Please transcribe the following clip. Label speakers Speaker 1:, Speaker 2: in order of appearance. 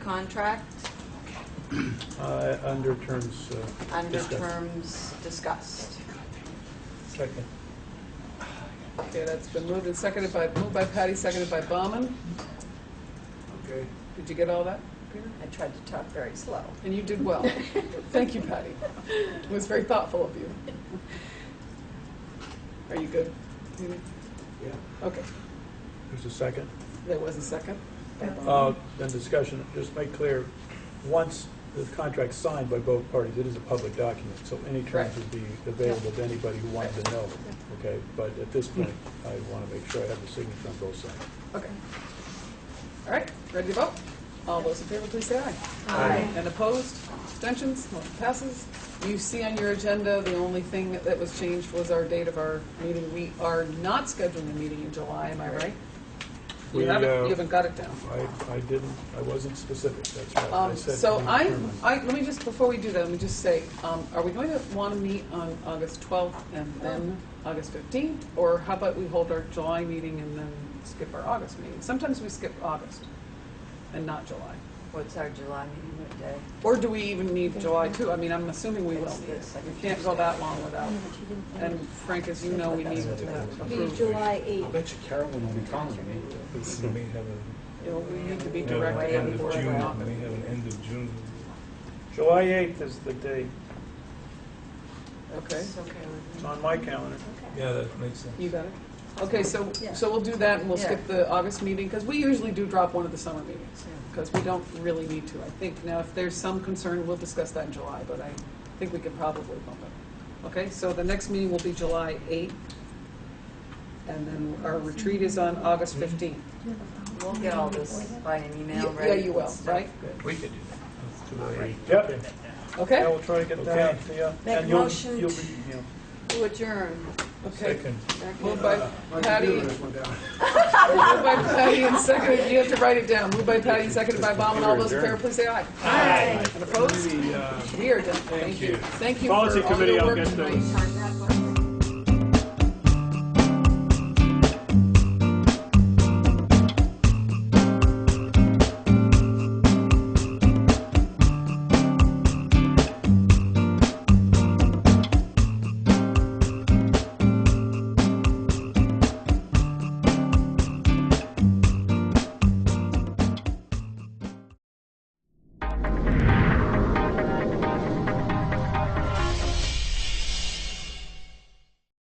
Speaker 1: contract
Speaker 2: Uh, Under terms uh,
Speaker 1: under
Speaker 2: discussed.
Speaker 1: terms discussed.
Speaker 2: Second.
Speaker 3: Okay, that's been moved and seconded by, moved by Patty, seconded by Bauman.
Speaker 2: Okay.
Speaker 3: Did you get all that, Peter?
Speaker 4: I tried to talk very slow.
Speaker 3: And you did well. Thank you, Patty. It was very thoughtful of you. Are you good? You-
Speaker 2: Yeah.
Speaker 3: Okay,
Speaker 2: There's a second.
Speaker 3: there was a second. by
Speaker 2: Uh,
Speaker 3: Bauman.
Speaker 2: Then discussion, just make clear, once the contract's signed by both parties, it is a public document, so any terms
Speaker 3: Right.
Speaker 2: would be available to anybody who wanted to know, okay? But at this point, I want to make sure I have the signature on both sides.
Speaker 3: Okay. All right, ready to vote? All those in favor, please say aye.
Speaker 2: Aye.
Speaker 3: And opposed? Abstentions? Motion passes. You see on your agenda, the only thing that was changed was our date of our meeting. We are not scheduling a meeting in July, am I right? You
Speaker 2: We,
Speaker 3: haven't,
Speaker 2: uh,
Speaker 3: you haven't got it down.
Speaker 2: I, I didn't, I wasn't specific, that's right. I
Speaker 3: Um,
Speaker 2: said
Speaker 3: So
Speaker 2: to be
Speaker 3: I,
Speaker 2: determined.
Speaker 3: I, let me just, before we do that, let me just say, um, are we going to want to meet on August 12th and then August 15th? Or how about we hold our July meeting and then skip our August meeting? Sometimes we skip August and not July.
Speaker 4: What's our July meeting, what day?
Speaker 3: Or do we even need July too? I mean, I'm assuming we will
Speaker 4: It's
Speaker 3: need
Speaker 4: the
Speaker 3: it.
Speaker 4: second
Speaker 3: We can't go that long without, and
Speaker 5: And
Speaker 3: Frank, as you know, we need to
Speaker 5: be
Speaker 3: approve.
Speaker 5: July
Speaker 6: I
Speaker 5: 8th.
Speaker 6: bet you Carolyn will be calling me.
Speaker 7: We may have a,
Speaker 3: You know, We need to be
Speaker 7: we have an
Speaker 3: directed on
Speaker 7: end of
Speaker 3: board.
Speaker 7: June,
Speaker 3: by
Speaker 7: we may have an
Speaker 3: August.
Speaker 7: end of June.
Speaker 8: July 8th is the date.
Speaker 3: Okay,
Speaker 1: It's okay with
Speaker 8: It's
Speaker 1: me.
Speaker 8: on my calendar.
Speaker 5: Okay.
Speaker 7: Yeah, that makes sense.
Speaker 3: you got it? Okay, so,
Speaker 5: Yeah.
Speaker 3: so we'll do that and we'll skip
Speaker 4: Yeah.
Speaker 3: the August meeting, because we usually do drop one of the summer meetings, because we don't really need to, I think. Now, if there's some concern, we'll discuss that in July, but I think we can probably bump it. Okay, so the next meeting will be July 8th, and then our retreat is on August 15th.
Speaker 4: We'll get all this by an email,
Speaker 3: Y-
Speaker 4: right?
Speaker 3: Yeah, you will, right?
Speaker 7: We could do that. That's too late.
Speaker 8: Yep, I
Speaker 3: Okay?
Speaker 8: will try to get that out to you.
Speaker 4: Make
Speaker 8: And you'll-
Speaker 4: motion
Speaker 8: you'll be- yeah.
Speaker 1: To adjourn.
Speaker 3: Okay.
Speaker 7: Second.
Speaker 3: Moved by Patty. Moved by Patty and seconded, you have to write it down. Moved by Patty and seconded by Bauman. All those in favor, please say aye.
Speaker 5: Aye.
Speaker 2: uh,
Speaker 3: And opposed? We are done. Thank you. Thank you for all
Speaker 8: Policy
Speaker 3: your
Speaker 8: committee, I'll
Speaker 3: work
Speaker 8: get
Speaker 3: tonight.
Speaker 8: those.
Speaker 1: Turn that